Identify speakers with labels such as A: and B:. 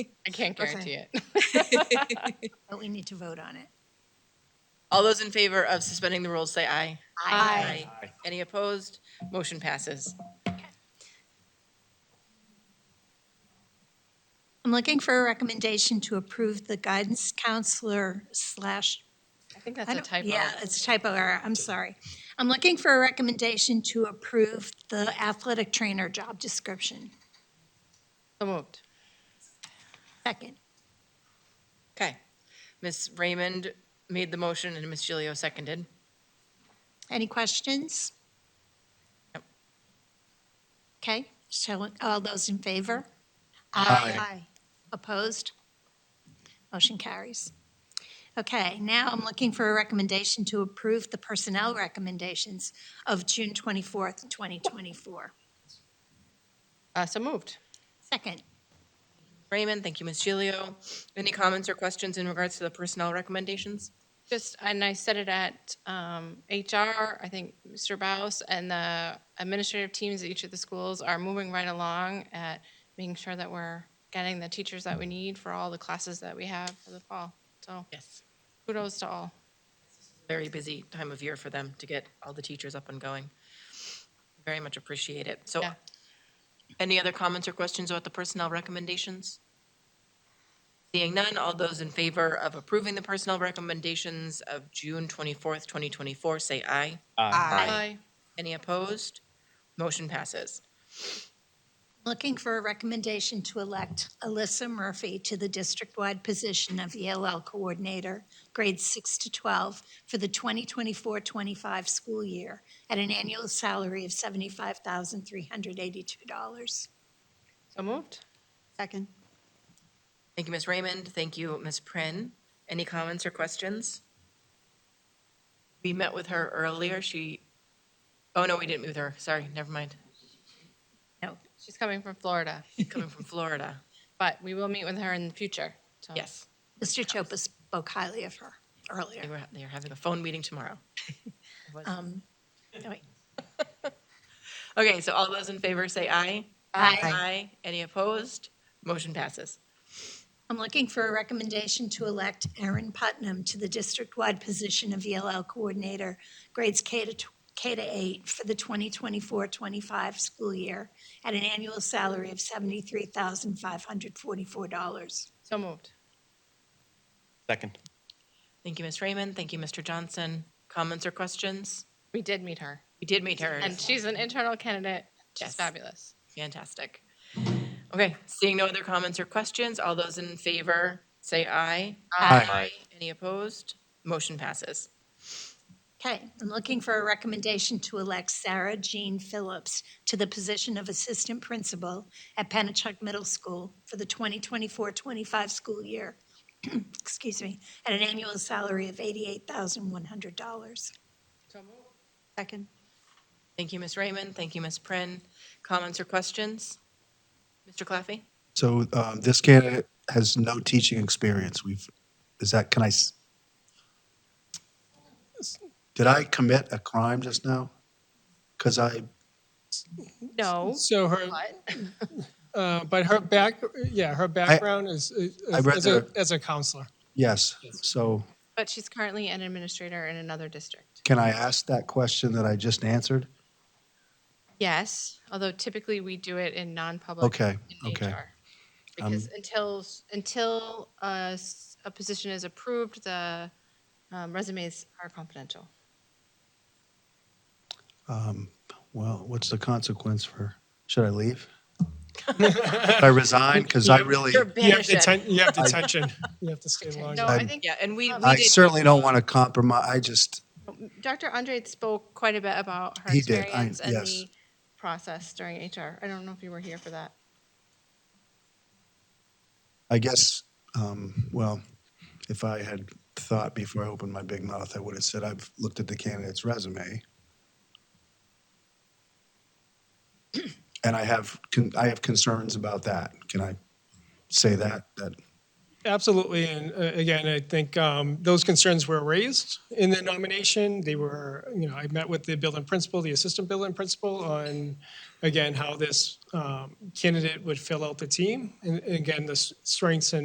A: I can't
B: Okay.
A: guarantee it.
C: But we need to vote on it.
B: All those in favor of suspending the rules, say aye.
A: Aye.
B: Any opposed? Motion passes.
C: I'm looking for a recommendation to approve the guidance counselor slash.
A: I think
C: I
A: that's a
C: don't-
A: typo.
C: Yeah, it's a typo error, I'm sorry. I'm looking for a recommendation to approve the athletic trainer job description.
B: So moved.
C: Second.
B: Okay. Ms. Raymond made the motion and Ms. Gilio seconded.
C: Any questions?
B: Nope.
C: Okay, so all those in favor?
D: Aye.
C: Opposed? Motion carries. Okay, now I'm looking for a recommendation to approve the personnel recommendations of June 24th, 2024.
B: Uh, So moved.
C: Second.
B: Raymond, thank you, Ms. Gilio. Any comments or questions in regards to the personnel recommendations?
A: Just, and I said it at um, HR, I think Mr. Baus and the administrative teams at each of the schools are moving right along at making sure that we're getting the teachers that we need for all the classes that we have for the fall. So
B: Yes.
A: kudos to all.
B: Very busy time of year for them to get all the teachers up and going. Very much appreciate it. So
A: Yeah.
B: any other comments or questions about the personnel recommendations? Seeing none, all those in favor of approving the personnel recommendations of June 24th, 2024, say aye.
A: Aye.
B: Any opposed? Motion passes.
C: Looking for a recommendation to elect Alyssa Murphy to the district-wide position of ELL Coordinator, grades 6 to 12, for the 2024-25 school year, at an annual salary of $75,382.
A: So moved.
E: Second.
B: Thank you, Ms. Raymond. Thank you, Ms. Prin. Any comments or questions? We met with her earlier. She, oh no, we didn't meet with her. Sorry, never mind.
A: She's coming from Florida,
B: Coming from Florida.
A: but we will meet with her in the future.
C: Oh.
A: So
B: Yes,
C: Mr. Chopa spoke highly of her earlier.
B: they were, they are having a phone meeting tomorrow.
C: Um, oh, wait.
B: Okay, so all those in favor say aye.
C: Aye.
B: Aye. Any opposed? Motion passes.
C: I'm looking for a recommendation to elect Erin Putnam to the district-wide position of ELL Coordinator, grades K to, tw- K to 8 for the 2024-25 school year at an annual salary of $73,544.
A: So moved.
D: Second.
B: Thank you, Ms. Raymond. Thank you, Mr. Johnson. Comments or questions?
A: We did meet her.
B: We did meet her.
A: And she's an internal candidate. She's
B: Yes.
A: fabulous.
B: Fantastic. Okay, seeing no other comments or questions, all those in favor, say aye.
D: Aye. Aye.
B: Any opposed? Motion passes.
C: Okay, I'm looking for a recommendation to elect Sarah Jean Phillips to the position of Assistant Principal at Pennachuck Middle School for the 2024-25 school year, excuse me, at an annual salary of $88,100.
A: So moved.
E: Second.
B: Thank you, Ms. Raymond. Thank you, Ms. Prin. Comments or questions? Mr. Claffey?
D: So um, this candidate has no teaching experience. We've, is that, can I? s- Did I commit a crime just now? Because I,
A: No.
F: So her,
A: What?
F: uh, but her back, yeah, her background is, is
D: I read
F: as a,
D: the-
F: as a counselor.
D: yes, so
A: But she's currently an administrator in another district.
D: can I ask that question that I just answered?
A: Yes, although typically we do it in non-public.
D: Okay,
A: in
D: okay. Um,
A: HR. Because until, s- until a, s- a position is approved, the um, resumes are confidential.
D: Well, what's the consequence for, should I leave? Should I resign? Because I really,
B: You're
F: You have
B: banished.
F: detention, you have detention, you have to stay
A: No,
F: longer.
A: I
D: I'm-
A: think
B: Yeah, and we, we
D: I
B: did-
D: certainly don't want to compromise. I just,
A: Dr. Andre spoke quite a bit about her
D: He did, I-
A: experience and
D: yes.
A: the process during HR. I don't know if you were here for that.
D: I guess, um, well, if I had thought before I opened my big mouth, I would have said I've looked at the candidate's resume. And I have, con- I have concerns about that. Can I say that, that
F: Absolutely, and uh, again, I think um, those concerns were raised in the nomination. They were, you know, I met with the building principal, the assistant building principal, on, again, how this um, candidate would fill out the team, and and again, the s- strengths and